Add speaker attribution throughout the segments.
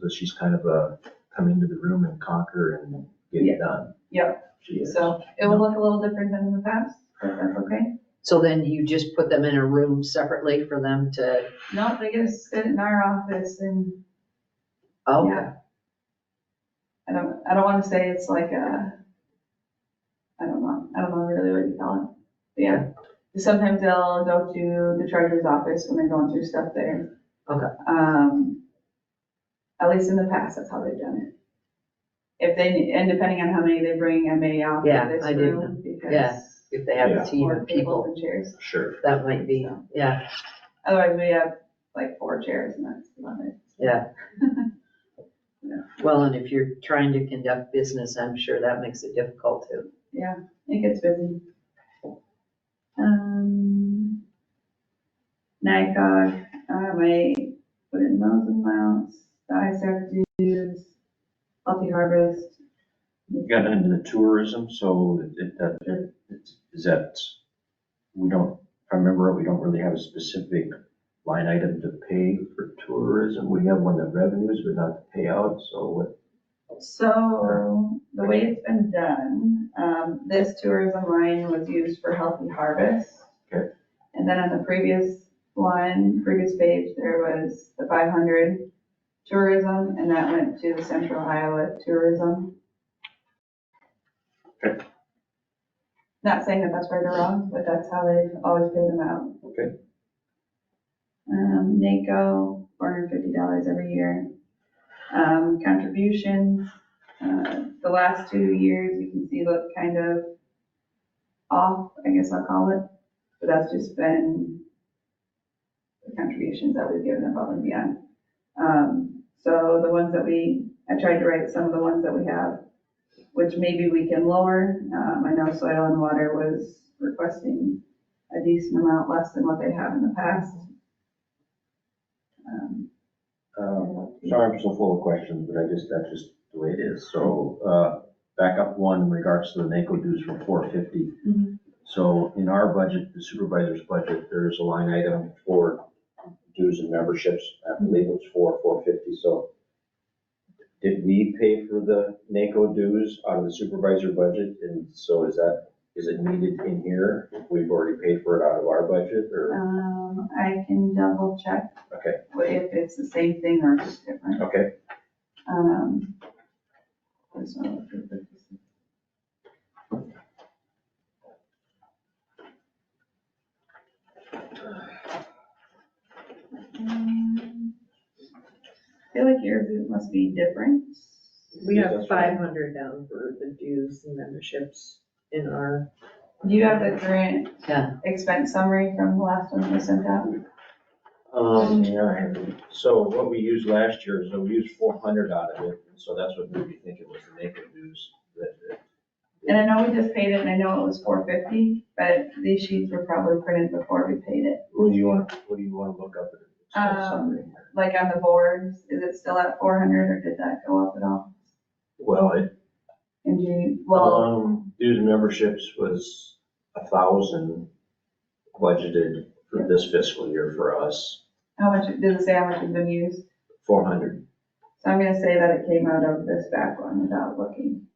Speaker 1: But she's kind of a come into the room and conquer and get
Speaker 2: Yeah.
Speaker 1: it done.
Speaker 2: Yep.
Speaker 1: She is.
Speaker 2: So it will look a little different than in the past, but
Speaker 3: Uh-huh.
Speaker 2: that's okay.
Speaker 3: So then you just put them in a room separately for them to,
Speaker 2: No, they get to sit in our office and
Speaker 3: oh,
Speaker 2: Yeah. I don't, I don't wanna say it's like a, I don't know, I don't know really what you call it. But Yeah, sometimes they'll go to the treasurer's office when they're going through stuff there.
Speaker 3: Okay.
Speaker 2: Um, at least in the past, that's how they've done it. If they, and depending on how many they bring, I may offer
Speaker 3: Yeah,
Speaker 2: this
Speaker 3: I do
Speaker 2: room because.
Speaker 3: yeah, if they have
Speaker 1: Yeah.
Speaker 3: a team
Speaker 2: More
Speaker 3: of
Speaker 2: tables
Speaker 3: people,
Speaker 2: and chairs.
Speaker 1: Sure.
Speaker 3: that might be, yeah,
Speaker 2: Otherwise, we have like four chairs and that's about it.
Speaker 3: yeah. Well, and if you're trying to conduct business, I'm sure that makes it difficult too.
Speaker 2: It gets busy. Um, NICOG, uh, my, put in those amounts, the ISAC dues, healthy harvest.
Speaker 1: You got into the tourism, so it- it, that, it- it's- is that, we don't, if I remember, right, we don't really have a specific line item to pay for tourism. We have one that revenues, but not the payout, so what,
Speaker 2: So the way it's been done, um, this tourism line was used for healthy harvest.
Speaker 1: Okay.
Speaker 2: And then on the previous one, previous page, there was the five hundred tourism and that went to the Central Iowa Tourism.
Speaker 1: Okay.
Speaker 2: Not saying that that's right or wrong, but that's how they've always paid them out.
Speaker 1: okay,
Speaker 2: Um, NACO, four hundred fifty dollars every year. Um, contributions, uh, the last two years, you can see look kind of off, I guess I'll call it. But that's just been the contributions that we've given above and beyond. Um, so the ones that we, I tried to write some of the ones that we have, which maybe we can lower. Um, I know Soil and Water was requesting a decent amount less than what they have in the past. Um,
Speaker 1: um, sorry, I'm so full of questions, but I just, that's just the way it is. So, uh, back up one in regards to the NACO dues from four fifty.
Speaker 2: Mhm.
Speaker 1: So in our budget, the supervisor's budget, there's a line item for dues and memberships. I believe it was four, four fifty, so. Did we pay for the NACO dues out of the supervisor budget? And so is that, is it needed in here? if We've already paid for it out of our budget or,
Speaker 2: Um, I can double check
Speaker 1: okay,
Speaker 2: if it's the same thing or if it's different.
Speaker 1: okay,
Speaker 2: Um, this one, the 56. Um, I feel like yours it must be different.
Speaker 4: We
Speaker 1: Yes,
Speaker 4: have
Speaker 1: that's right.
Speaker 4: five hundred down for the dues and memberships in our,
Speaker 2: Do you have the current
Speaker 3: Yeah.
Speaker 2: expense summary from the last one we sent out? Mm-hmm.
Speaker 1: Um, yeah, I have it. so what we used last year is that we used four hundred out of it, and so that's what made me think it was the NACO dues that, that
Speaker 2: And I know we just paid it, and I know it was four fifty, but these sheets were probably printed before we paid it.
Speaker 1: What do you want, what do you want to look up? at the expense
Speaker 2: Um,
Speaker 1: summary?
Speaker 2: Like on the boards, is it still at four hundred, or did that go up at all?
Speaker 1: Well, it,
Speaker 2: And you, well,
Speaker 1: um, dues and memberships was a thousand budgeted for this fiscal year for us,
Speaker 2: how much, did it say how much has been used?
Speaker 1: four hundred.
Speaker 2: So I'm gonna say that it came out of this back one without looking,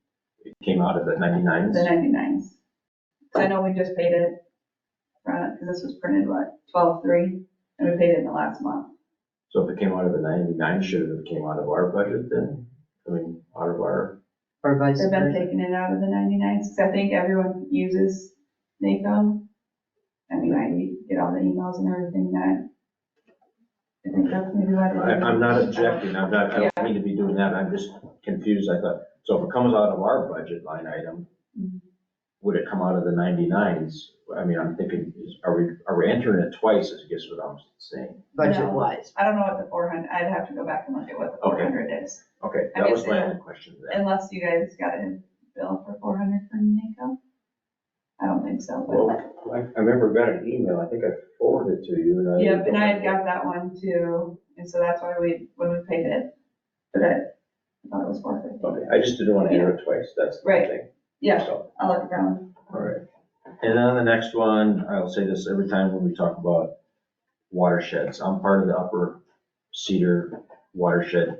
Speaker 1: It came out of the
Speaker 2: the
Speaker 1: ninety-nines,
Speaker 2: ninety-nines. So I know we just paid it, because this was printed, what, twelve-three, and we paid it in the last month.
Speaker 1: so if it came out of the ninety-nine, should it have came out of our budget then? I mean, out of our,
Speaker 3: Or vice
Speaker 2: They've been
Speaker 3: versa.
Speaker 2: taking it out of the 99s, because I think everyone uses NACO. I mean, I get all the emails and everything that, I think that's maybe why.
Speaker 1: I,
Speaker 2: they-
Speaker 1: I'm not objecting, I'm not, I don't mean to be doing that, I'm just confused, I thought, so if it comes out of our budget line item,
Speaker 2: Mhm.
Speaker 1: would it come out of the ninety-nines? I mean, I'm thinking, is- are we, are we entering it twice, I guess what I'm saying?
Speaker 3: budget wise.
Speaker 2: uh, I don't know what the 400, I'd have to go back and look at what the
Speaker 1: Okay.
Speaker 2: 400 is,
Speaker 1: Okay,
Speaker 2: I
Speaker 1: that
Speaker 2: guess
Speaker 1: was my
Speaker 2: they-
Speaker 1: only question to that.
Speaker 2: unless you guys got a bill for 400 from NACO. I don't think so, but,
Speaker 1: Well, I, I remember got an email, I think I forwarded it to you and I.
Speaker 2: yeah, and I had got that one too, and so that's why we, when we paid it, but I thought it was 450.
Speaker 1: Okay, I just didn't want to enter it twice, that's the
Speaker 2: Right.
Speaker 1: thing.
Speaker 2: Yeah,
Speaker 1: So.
Speaker 2: I'll look at that one.
Speaker 1: All right. And then the next one, I'll say this every time when we talk about watersheds. I'm part of the Upper Cedar Watershed